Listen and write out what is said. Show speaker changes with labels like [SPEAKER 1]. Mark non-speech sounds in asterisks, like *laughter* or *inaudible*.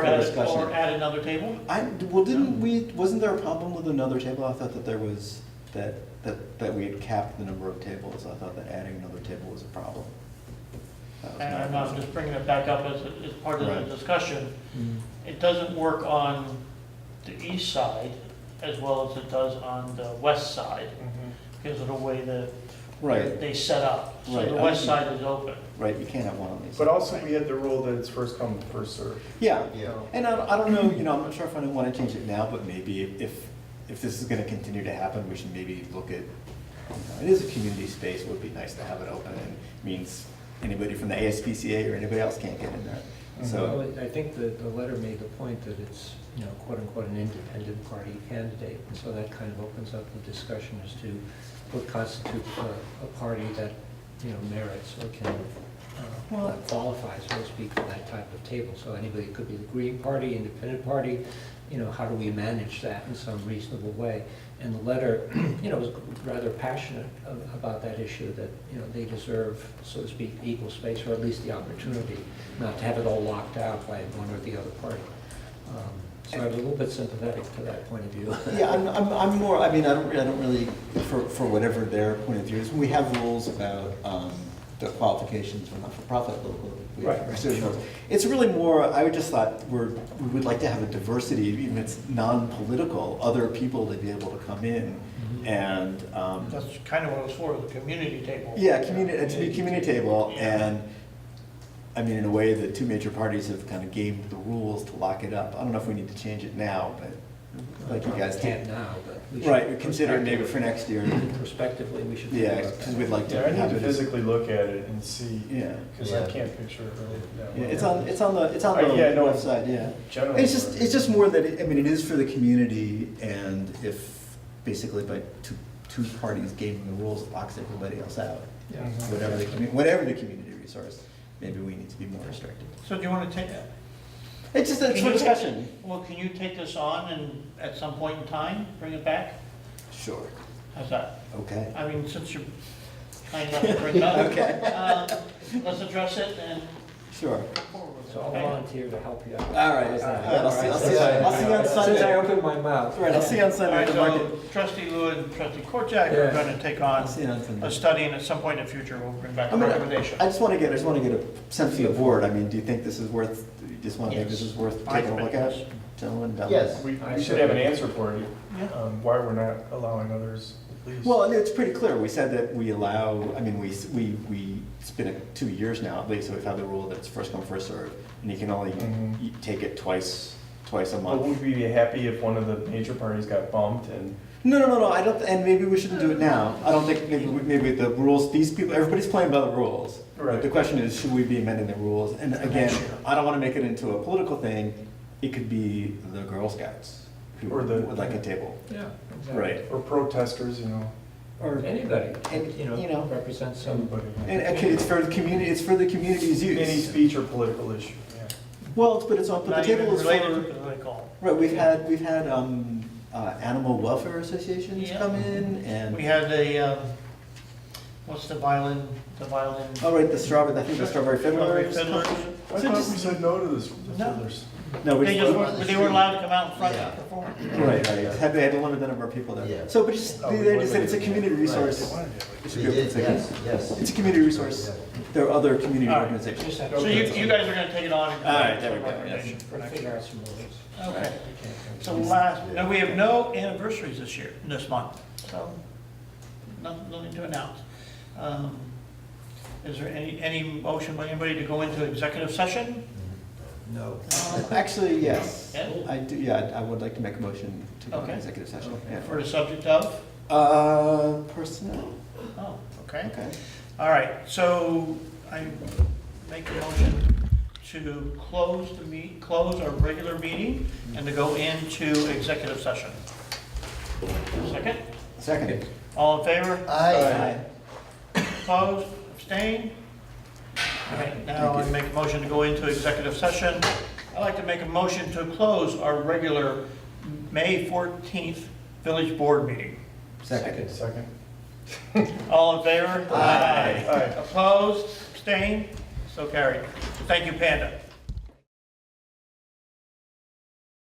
[SPEAKER 1] Or
[SPEAKER 2] For
[SPEAKER 1] at-
[SPEAKER 2] discussion.
[SPEAKER 1] Or at another table?
[SPEAKER 2] I, well, didn't we, wasn't there a problem with another table? I thought that there was, that, that, that we had capped the number of tables. I thought that adding another table was a problem. That was
[SPEAKER 1] And Uh, I'm
[SPEAKER 2] my-
[SPEAKER 1] not just bringing it back up as, as part of
[SPEAKER 2] Right.
[SPEAKER 1] the discussion. It doesn't work on the east side as well as it does on the west side because of the way that
[SPEAKER 2] Right,
[SPEAKER 1] they set up. So
[SPEAKER 2] Right,
[SPEAKER 1] the
[SPEAKER 2] I
[SPEAKER 1] west
[SPEAKER 2] see.
[SPEAKER 1] side is open.
[SPEAKER 2] right, you can't have one on these.
[SPEAKER 3] But also, we had the rule that it's first come, first served.
[SPEAKER 2] Yeah,
[SPEAKER 4] Yeah.
[SPEAKER 2] and I, I don't know, you know, I'm not sure if I want to change it now, but maybe if, if this is going to continue to happen, we should maybe look at, you know, it is a community space, it would be nice to have it open, and means anybody from the ASPCA or anybody else can't get in there, so.
[SPEAKER 4] Well, I think that the letter made the point that it's, you know, quote unquote, an independent party candidate. And so that kind of opens up the discussion as to what constitutes a, a party that, you know, merits or can,
[SPEAKER 2] Well-
[SPEAKER 4] uh, qualifies, so to speak, for that type of table. So anybody, it could be the Green Party, Independent Party, you know, how do we manage that in some reasonable way? And the letter, *clears throat* you know, was rather passionate a- about that issue, that, you know, they deserve, so to speak, equal space, or at least the opportunity, not to have it all locked out by one or the other party. Um, So I was a little bit sympathetic to that point of view.
[SPEAKER 2] Yeah,
[SPEAKER 4] *laughs*
[SPEAKER 2] I'm, I'm, I'm more, I mean, I don't, re- I don't really, for, for whatever their point of view is, we have rules about, um, the qualifications for not-for-profit local. we have
[SPEAKER 4] Right, right,
[SPEAKER 2] certain
[SPEAKER 4] sure.
[SPEAKER 2] rules. It's really more, I would just thought, we're, we would like to have a diversity, even if it's non-political, other people to be able to come in
[SPEAKER 4] Mhm.
[SPEAKER 2] and, um,
[SPEAKER 1] Mm-hmm. That's kind of what it's for, the community table.
[SPEAKER 2] yeah, community, to be community table,
[SPEAKER 1] Yeah.
[SPEAKER 2] and, I mean, in a way, the two major parties have kind of gamed the rules to lock it up. I don't know if we need to change it now, but like you guys
[SPEAKER 4] We
[SPEAKER 2] did.
[SPEAKER 1] uh,
[SPEAKER 4] Can't now, but we should.
[SPEAKER 2] Right, we consider it maybe for next year.
[SPEAKER 4] Prospectively, we should. think
[SPEAKER 2] Yeah,
[SPEAKER 4] about
[SPEAKER 2] because
[SPEAKER 4] that.
[SPEAKER 2] we'd like to
[SPEAKER 3] Yeah, I
[SPEAKER 2] have
[SPEAKER 3] need to
[SPEAKER 2] it. as-
[SPEAKER 3] physically look at it and see,
[SPEAKER 2] Yeah,
[SPEAKER 3] because I
[SPEAKER 4] Yeah.
[SPEAKER 3] can't picture it really that
[SPEAKER 2] yeah,
[SPEAKER 3] well.
[SPEAKER 2] it's on, it's on the, it's on
[SPEAKER 3] Uh, yeah,
[SPEAKER 2] the
[SPEAKER 3] no.
[SPEAKER 2] left side, yeah.
[SPEAKER 3] Generally.
[SPEAKER 2] It's just, it's just more that, it- I mean, it is for the community, and if, basically by two, two parties gaming the rules, it locks everybody else out.
[SPEAKER 3] Yeah.
[SPEAKER 2] Whatever the, commu- whatever the community resource, maybe we need to be more restrictive.
[SPEAKER 1] So do you want to take,
[SPEAKER 2] It's just, it's
[SPEAKER 1] Can
[SPEAKER 2] for
[SPEAKER 1] you-
[SPEAKER 2] discussion.
[SPEAKER 1] well, can you take this on and at some point in time, bring it back?
[SPEAKER 2] Sure.
[SPEAKER 1] How's that?
[SPEAKER 2] Okay.
[SPEAKER 1] I mean, since you're kind enough to bring it up.
[SPEAKER 2] *laughs* Okay.
[SPEAKER 1] um, Let's address it and
[SPEAKER 2] Sure.
[SPEAKER 1] forward. with it,
[SPEAKER 4] So I'll
[SPEAKER 1] okay?
[SPEAKER 4] volunteer to help you out.
[SPEAKER 2] All right,
[SPEAKER 4] How's that?
[SPEAKER 2] all right, I'll see- I'll see you- I'll see you on
[SPEAKER 4] Since
[SPEAKER 2] Sunday.
[SPEAKER 4] I opened my mouth.
[SPEAKER 2] All right, I'll see you on
[SPEAKER 1] All
[SPEAKER 2] Sunday
[SPEAKER 1] right,
[SPEAKER 2] at the market.
[SPEAKER 1] so trustee Lou and trustee Korjak are
[SPEAKER 4] Yeah.
[SPEAKER 1] going to take
[SPEAKER 2] I'll
[SPEAKER 1] on
[SPEAKER 2] see you on Sunday.
[SPEAKER 1] a study and at some point in the future, we'll bring back
[SPEAKER 2] I
[SPEAKER 1] a
[SPEAKER 2] mean, I-
[SPEAKER 1] recommendation.
[SPEAKER 2] I just want to get, I just want to get a sense of the board. I mean, do you think this is worth, do you just want to think this is worth
[SPEAKER 1] I
[SPEAKER 2] taking a look
[SPEAKER 1] think
[SPEAKER 2] at?
[SPEAKER 1] it is.
[SPEAKER 2] Gentlemen, down.
[SPEAKER 4] Yes.
[SPEAKER 3] We, we should have an answer for you,
[SPEAKER 1] Yeah.
[SPEAKER 3] um, why we're not allowing others at least.
[SPEAKER 2] Well, and it's pretty clear. We said that we allow, I mean, we, s- we, we, it's been uh, two years now, at least, so we've had the rule that it's first come, first served. And you can only
[SPEAKER 3] Mhm.
[SPEAKER 2] y- take it twice, twice a
[SPEAKER 3] But
[SPEAKER 2] month.
[SPEAKER 3] would we be happy if one of the major parties got bumped and,
[SPEAKER 2] No, no, no, no, I don't, and maybe we shouldn't do it now. I don't think, maybe, we- maybe the rules, these people, everybody's playing by the rules. But
[SPEAKER 3] Right.
[SPEAKER 2] The question is, should we be amending the rules? And again, I don't want to make it into a political thing. It could be the Girl Scouts who
[SPEAKER 3] Or the-
[SPEAKER 2] would like a table.
[SPEAKER 4] Yeah. exactly.
[SPEAKER 2] Right.
[SPEAKER 3] or protesters, you know,
[SPEAKER 2] Or,
[SPEAKER 4] Anybody,
[SPEAKER 2] And,
[SPEAKER 4] you
[SPEAKER 2] you
[SPEAKER 4] know,
[SPEAKER 2] know,
[SPEAKER 4] represents some.
[SPEAKER 3] somebody.
[SPEAKER 2] and, okay, it's for the community, it's for the community's
[SPEAKER 3] Any
[SPEAKER 2] use.
[SPEAKER 3] speech or political issue, yeah.
[SPEAKER 2] Well, it's- but it's, on- but
[SPEAKER 1] Not
[SPEAKER 2] the table
[SPEAKER 1] even
[SPEAKER 2] is
[SPEAKER 1] related to
[SPEAKER 2] for,
[SPEAKER 1] the recall.
[SPEAKER 2] right, we've had, we've had, um, uh, animal welfare associations
[SPEAKER 1] Yeah.
[SPEAKER 2] come in
[SPEAKER 1] We
[SPEAKER 2] and,
[SPEAKER 1] had a, um, what's the violin, the violin?
[SPEAKER 2] oh, right, the strawberry, I think the strawberry
[SPEAKER 1] Strawberry
[SPEAKER 2] fiddlers.
[SPEAKER 1] fiddlers.
[SPEAKER 3] I
[SPEAKER 2] So
[SPEAKER 3] thought we
[SPEAKER 2] just-
[SPEAKER 3] said no to this, the
[SPEAKER 1] No.
[SPEAKER 3] fiddlers.
[SPEAKER 2] No, we
[SPEAKER 1] They
[SPEAKER 2] just-
[SPEAKER 1] just, were- they were allowed to come out in front
[SPEAKER 5] Yeah.
[SPEAKER 1] and perform.
[SPEAKER 2] Right, right. Had they had to limit the number of people
[SPEAKER 5] Yeah.
[SPEAKER 2] there. So, but just,
[SPEAKER 3] Oh,
[SPEAKER 2] they
[SPEAKER 3] we
[SPEAKER 2] they just said
[SPEAKER 3] limited
[SPEAKER 2] it's a
[SPEAKER 3] it.
[SPEAKER 2] community resource.
[SPEAKER 3] They wanted it.
[SPEAKER 2] It should
[SPEAKER 5] We
[SPEAKER 2] be open
[SPEAKER 5] did,
[SPEAKER 2] to-
[SPEAKER 5] yes, yes.
[SPEAKER 2] It's a community resource. There are other community
[SPEAKER 1] All right.
[SPEAKER 2] organizations.
[SPEAKER 4] Just have
[SPEAKER 1] So you, you guys are going to take it on and. come
[SPEAKER 2] All
[SPEAKER 1] up
[SPEAKER 2] right,
[SPEAKER 1] with
[SPEAKER 2] there we
[SPEAKER 1] some
[SPEAKER 2] go, yes.
[SPEAKER 1] recommendation for
[SPEAKER 4] Gotta
[SPEAKER 1] next
[SPEAKER 4] Figure
[SPEAKER 1] year.
[SPEAKER 4] out some rules.
[SPEAKER 1] Okay.
[SPEAKER 4] Okay.
[SPEAKER 1] So last, and we have no anniversaries this year, this month, so nothing, nothing to announce. Um, Is there any, any motion by anybody to go into executive session?
[SPEAKER 4] No.
[SPEAKER 1] Um,
[SPEAKER 2] Actually, yes.
[SPEAKER 1] Yeah.
[SPEAKER 2] I do, yeah, I would like to make a motion to go into
[SPEAKER 1] Okay.
[SPEAKER 2] executive session. yeah.
[SPEAKER 1] For the subject of?
[SPEAKER 2] Uh, personnel,
[SPEAKER 1] Oh, okay.
[SPEAKER 2] okay.
[SPEAKER 1] All right, so I make a motion to close the meet, close our regular meeting and to go into executive session. Second?
[SPEAKER 2] Second.
[SPEAKER 1] All in favor?
[SPEAKER 5] Aye.
[SPEAKER 1] Opposed, abstained? All right, now I make a motion to go into executive session. I'd like to make a motion to close our regular May 14th Village Board meeting.
[SPEAKER 2] Second.
[SPEAKER 3] Second.
[SPEAKER 1] All in favor?
[SPEAKER 2] Aye.
[SPEAKER 3] Aye.
[SPEAKER 1] Opposed, abstained, so carried. Thank you, Panda.